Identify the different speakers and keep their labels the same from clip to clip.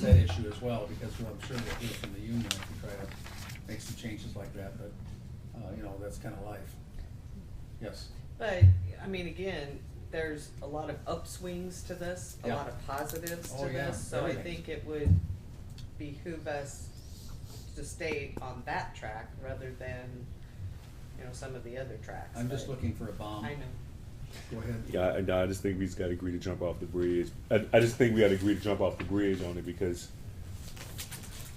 Speaker 1: that issue as well, because well, I'm sure we'll hear from the union if we try to make some changes like that, but, uh, you know, that's kind of life. Yes,
Speaker 2: But, I mean, again, there's a lot of upswings to this, a
Speaker 1: Yeah.
Speaker 2: lot of positives
Speaker 1: Oh,
Speaker 2: to
Speaker 1: yeah,
Speaker 2: this, so I
Speaker 1: everything.
Speaker 2: think it would behoove us to stay on that track rather than, you know, some of the other tracks.
Speaker 1: I'm just
Speaker 2: but-
Speaker 1: looking for um, a bomb.
Speaker 2: I know.
Speaker 1: Go ahead.
Speaker 3: Yeah, and I just think we just gotta agree to jump off the bridge. I, I just think we gotta agree to jump off the bridge on it because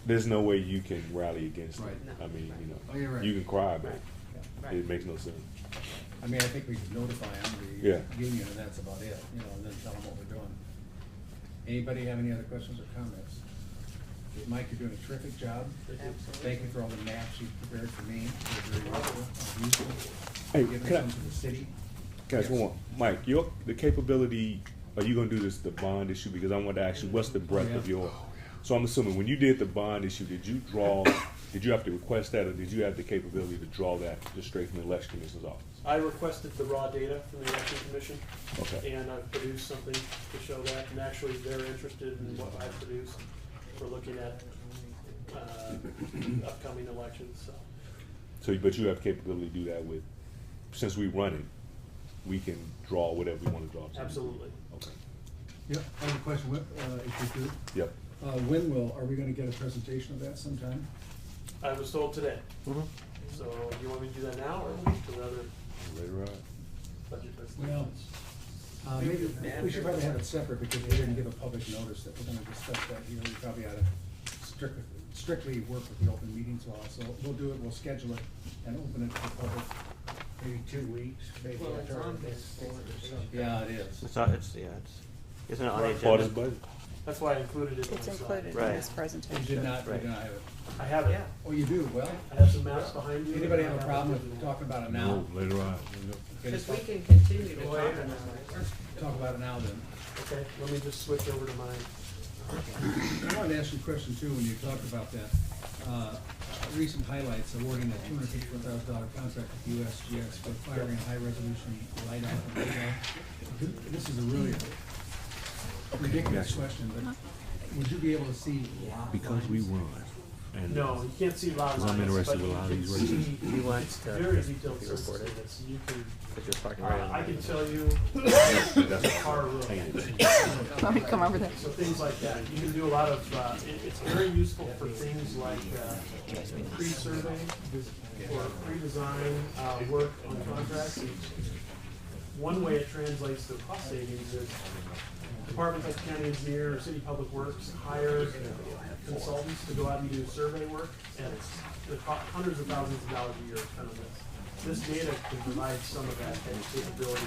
Speaker 3: there's no way you can rally against it.
Speaker 1: Right.
Speaker 2: No,
Speaker 3: I mean,
Speaker 2: right.
Speaker 3: you
Speaker 1: Oh, you're
Speaker 3: know,
Speaker 1: right.
Speaker 3: you can cry, but
Speaker 2: Right. Right.
Speaker 3: it makes no sense.
Speaker 1: I mean, I think we can notify them,
Speaker 3: Yeah.
Speaker 1: the union, and that's about it, you know, and then tell them what we're doing. Anybody have any other questions or comments? Mike, you're doing a terrific job. Thank you for all the maps you've prepared for me. They're very helpful, useful.
Speaker 3: Hey,
Speaker 1: Giving
Speaker 3: can I-
Speaker 1: some to the city.
Speaker 3: Guys, one
Speaker 1: Yes.
Speaker 3: more. Mike, your the capability. Are you gonna do this the bond issue? Because I want to ask you, what's the breadth of
Speaker 1: Oh, Yeah.
Speaker 3: your? So I'm assuming when you did the bond issue, did you draw? did you have to request that, or did you have the capability to draw that just straight from the election commissioner's office?
Speaker 4: I requested the raw data from the election commission,
Speaker 3: Okay.
Speaker 4: and I've produced something to show that, and actually they're interested in what I've produced. We're looking at, uh, upcoming elections, so.
Speaker 3: So, but you have capability to do that with. Since we run it, we can draw whatever we want to draw.
Speaker 4: Absolutely.
Speaker 3: Okay.
Speaker 5: Yeah, I have a question, What, uh, if you could.
Speaker 3: Yep.
Speaker 5: Uh, when will, are we gonna get a presentation of that sometime?
Speaker 4: I was told today, so do you want me to do that now or wait till the other
Speaker 3: Later on.
Speaker 4: budget presentations?
Speaker 5: Well, Uh, maybe, we should probably have it separate, because we didn't give a public notice that we're gonna discuss that here, we probably ought to strictly, strictly work with the open meetings law, so we'll do it, we'll schedule it, and open it to the public, maybe two weeks, maybe
Speaker 2: Well, it's
Speaker 5: after our
Speaker 2: on
Speaker 5: next
Speaker 2: this
Speaker 5: board or something.
Speaker 1: Yeah, it is.
Speaker 6: It's not, it's, yeah, it's, isn't it on the
Speaker 4: Right.
Speaker 3: Part of the
Speaker 6: agenda?
Speaker 3: budget.
Speaker 4: That's why I included it in my
Speaker 7: It's
Speaker 4: slide.
Speaker 7: included in
Speaker 6: Right.
Speaker 7: this
Speaker 1: You
Speaker 7: presentation.
Speaker 1: did not, you
Speaker 6: Right.
Speaker 1: did not have it.
Speaker 4: I have it.
Speaker 2: Yeah.
Speaker 1: Oh, you do? Well,
Speaker 4: I have some maps behind you.
Speaker 1: anybody have
Speaker 4: I
Speaker 1: a problem
Speaker 4: it in
Speaker 1: with
Speaker 4: there.
Speaker 1: talking about it now?
Speaker 3: later on.
Speaker 1: Okay,
Speaker 2: Cause
Speaker 1: just
Speaker 2: we
Speaker 1: talk-
Speaker 2: can continue to
Speaker 4: Go
Speaker 2: talk
Speaker 4: ahead.
Speaker 2: about it.
Speaker 1: Talk about it now then.
Speaker 4: Okay, let me just switch over to mine.
Speaker 5: I wanted to ask you a question too, when you talked about that, uh, recent highlights awarding a two hundred fifty-four thousand dollar contract with USGS for firing high resolution light out and radar. This is a really ridiculous question, but would you be able to see lot lines?
Speaker 3: run. And
Speaker 4: No, you can't see lot
Speaker 3: I'm
Speaker 4: lines,
Speaker 3: interested
Speaker 4: but
Speaker 3: with a
Speaker 4: you
Speaker 3: lot of
Speaker 4: can
Speaker 3: these races.
Speaker 4: see
Speaker 6: He wants to
Speaker 4: very detailed
Speaker 6: be
Speaker 4: systems
Speaker 6: reported,
Speaker 4: in this. You can,
Speaker 6: because you're parking right
Speaker 4: uh,
Speaker 6: on.
Speaker 4: I
Speaker 6: the-
Speaker 4: can tell you
Speaker 3: That's
Speaker 4: car road,
Speaker 7: Let me come over there.
Speaker 4: so things like that. You can do a lot of, uh, it, it's very useful for things like, uh, pre-survey or pre-design, uh, work on contracts. One way it translates to cost savings is departments like county engineer or city public works hire consultants to go out and do survey work, and it's, the co- hundreds of thousands of dollars a year is kind of this. This data can provide some of that capability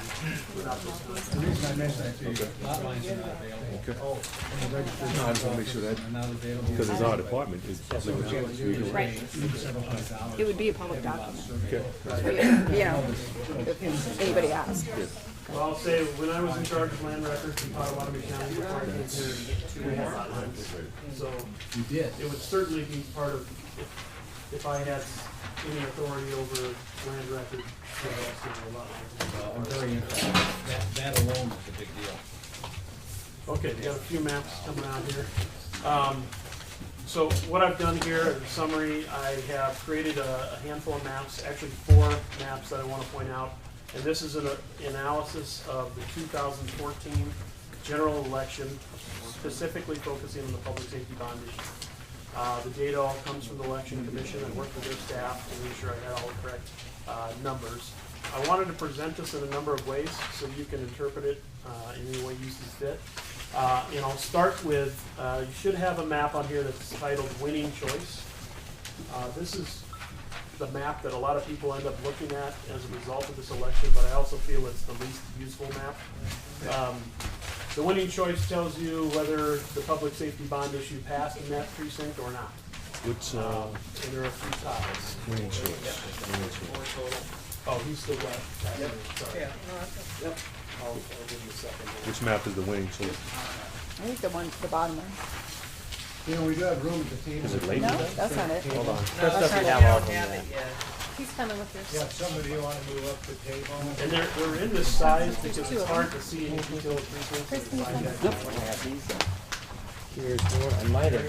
Speaker 4: without those
Speaker 5: The
Speaker 4: contracts.
Speaker 5: reason I mentioned that to you,
Speaker 1: Lot lines are not available.
Speaker 3: Okay.
Speaker 5: when Oh, the registered
Speaker 3: No, I just wanna make sure that-
Speaker 5: office are not available.
Speaker 3: Because it's our department. It's
Speaker 5: So
Speaker 3: public
Speaker 5: what you have to do is
Speaker 3: knowledge.
Speaker 7: Right.
Speaker 5: pay several hundred dollars
Speaker 7: It would be a
Speaker 5: to
Speaker 7: public
Speaker 5: have lot
Speaker 7: document.
Speaker 5: surveyed.
Speaker 3: Okay.
Speaker 7: You know, if anybody asks.
Speaker 4: Well, I'll say, when I was in charge of land records in Potawatomi County, before I came here, we had lot lines. So
Speaker 5: You did.
Speaker 4: it would certainly be part of, if- if I had any authority over land record, I'd have to do a lot
Speaker 1: Uh,
Speaker 4: lines.
Speaker 1: I'm very interested. That, that alone is a big deal.
Speaker 4: Okay, we got a few maps coming out here. Um, so what I've done here, in summary, I have created a, a handful of maps, actually four maps that I want to point out. And this is an uh, analysis of the 2014 general election, specifically focusing on the public safety bond issue. Uh, the data all comes from the election commission, I worked with their staff to make sure I had all the correct, uh, numbers. I wanted to present this in a number of ways, so you can interpret it, uh, in any way you see fit. Uh, and I'll start with, uh, you should have a map on here that's titled Winning Choice. Uh, this is the map that a lot of people end up looking at as a result of this election, but I also feel it's the least useful map. Um, the winning choice tells you whether the public safety bond issue passed in that precinct or not.
Speaker 3: What's uh,
Speaker 4: Um, and there are a few ties.
Speaker 3: winning choice? Winning choice.
Speaker 4: Oh, he's still left. Yep. Sorry.
Speaker 2: Yeah, no, that's-
Speaker 4: Yep. I'll, I'll give you a second.
Speaker 3: Which map is the winning choice?
Speaker 7: I think the one, the bottom one.
Speaker 5: You know, we do have room at the table.
Speaker 3: Is it late?
Speaker 7: No, that's not it.
Speaker 6: Hold on.
Speaker 2: no,
Speaker 6: That's
Speaker 2: we
Speaker 6: definitely
Speaker 2: don't
Speaker 6: downloadable,
Speaker 2: have
Speaker 6: yeah.
Speaker 2: it yet.
Speaker 7: He's coming with
Speaker 8: Yeah,
Speaker 7: yours.
Speaker 8: if some of you wanna move up the table.
Speaker 4: And they're, they're in this size because
Speaker 7: Two
Speaker 4: it's
Speaker 7: of them.
Speaker 4: hard to see any detailed precincts.
Speaker 7: Kristen,
Speaker 4: inside
Speaker 7: you
Speaker 4: that
Speaker 7: can-
Speaker 4: map.
Speaker 6: When I have these, uh, here's more, a minor.